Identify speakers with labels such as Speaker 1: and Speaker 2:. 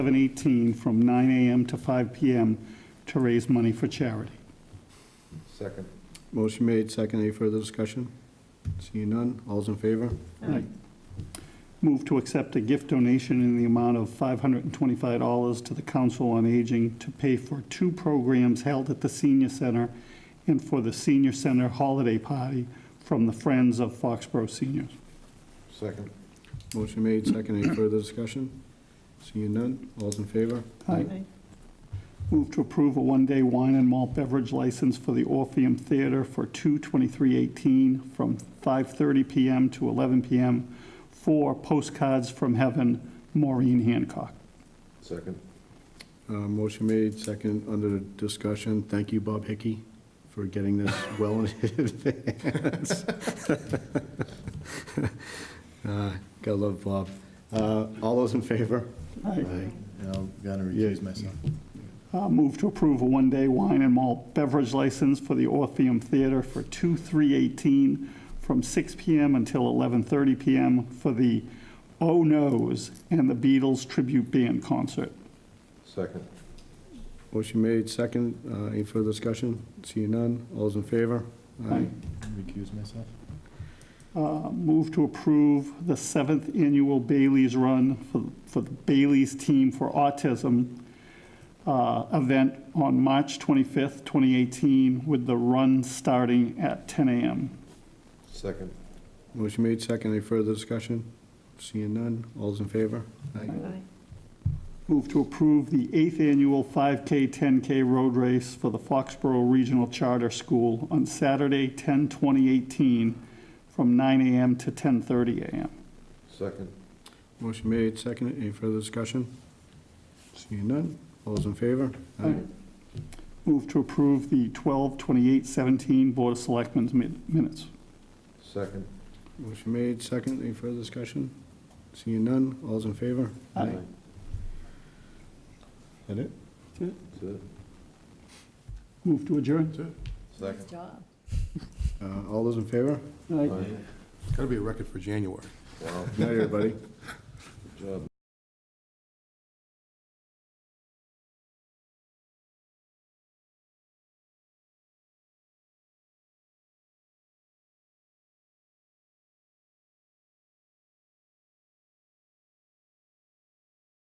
Speaker 1: 7:18 from 9 AM to 5 PM to raise money for charity.
Speaker 2: Second.
Speaker 3: Motion made, second. Any further discussion? Seeing none, all's in favor?
Speaker 1: Right. Move to accept a gift donation in the amount of $525 to the Council on Aging to pay for two programs held at the Senior Center and for the Senior Center Holiday Party from the Friends of Foxborough Seniors.
Speaker 2: Second.
Speaker 3: Motion made, second. Any further discussion? Seeing none, all's in favor?
Speaker 1: Aye. Move to approve a one-day wine and malt beverage license for the Orpheum Theater for 2/23/18 from 5:30 PM to 11 PM for Postcards from Heaven, Maureen Hancock.
Speaker 2: Second.
Speaker 3: Uh, Motion made, second. Under discussion. Thank you, Bob Hickey, for getting this well in advance. Uh, Gotta love Bob. Uh, All those in favor?
Speaker 4: I'm gonna recuse myself.
Speaker 1: Uh, Move to approve a one-day wine and malt beverage license for the Orpheum Theater for 2/3/18 from 6 PM until 11:30 PM for the Oh Noes and the Beatles Tribute Band Concert.
Speaker 2: Second.
Speaker 3: Motion made, second. Uh, Any further discussion? Seeing none, all's in favor?
Speaker 1: Aye.
Speaker 4: Recuse myself.
Speaker 1: Uh, Move to approve the seventh annual Bailey's Run for- for the Bailey's Team for Autism uh, event on March 25th, 2018, with the run starting at 10 a.m.
Speaker 2: Second.
Speaker 3: Motion made, second. Any further discussion? Seeing none, all's in favor?
Speaker 1: Move to approve the eighth annual 5K, 10K road race for the Foxborough Regional Charter School on Saturday, 10/2018, from 9 a.m. to 10:30 a.m.
Speaker 2: Second.
Speaker 3: Motion made, second. Any further discussion? Seeing none, all's in favor?
Speaker 1: Move to approve the 12/28/17 Board of Selectmen's min- minutes.
Speaker 2: Second.
Speaker 3: Motion made, second. Any further discussion? Seeing none, all's in favor?
Speaker 1: Aye.
Speaker 4: That it?
Speaker 2: That's it.
Speaker 1: Move to adjourn.
Speaker 2: Second.
Speaker 5: job.
Speaker 3: Uh, All those in favor?
Speaker 1: Aye.
Speaker 2: Aye.
Speaker 6: It's gotta be a record for January.
Speaker 2: Wow,
Speaker 3: Night, everybody.
Speaker 2: good job.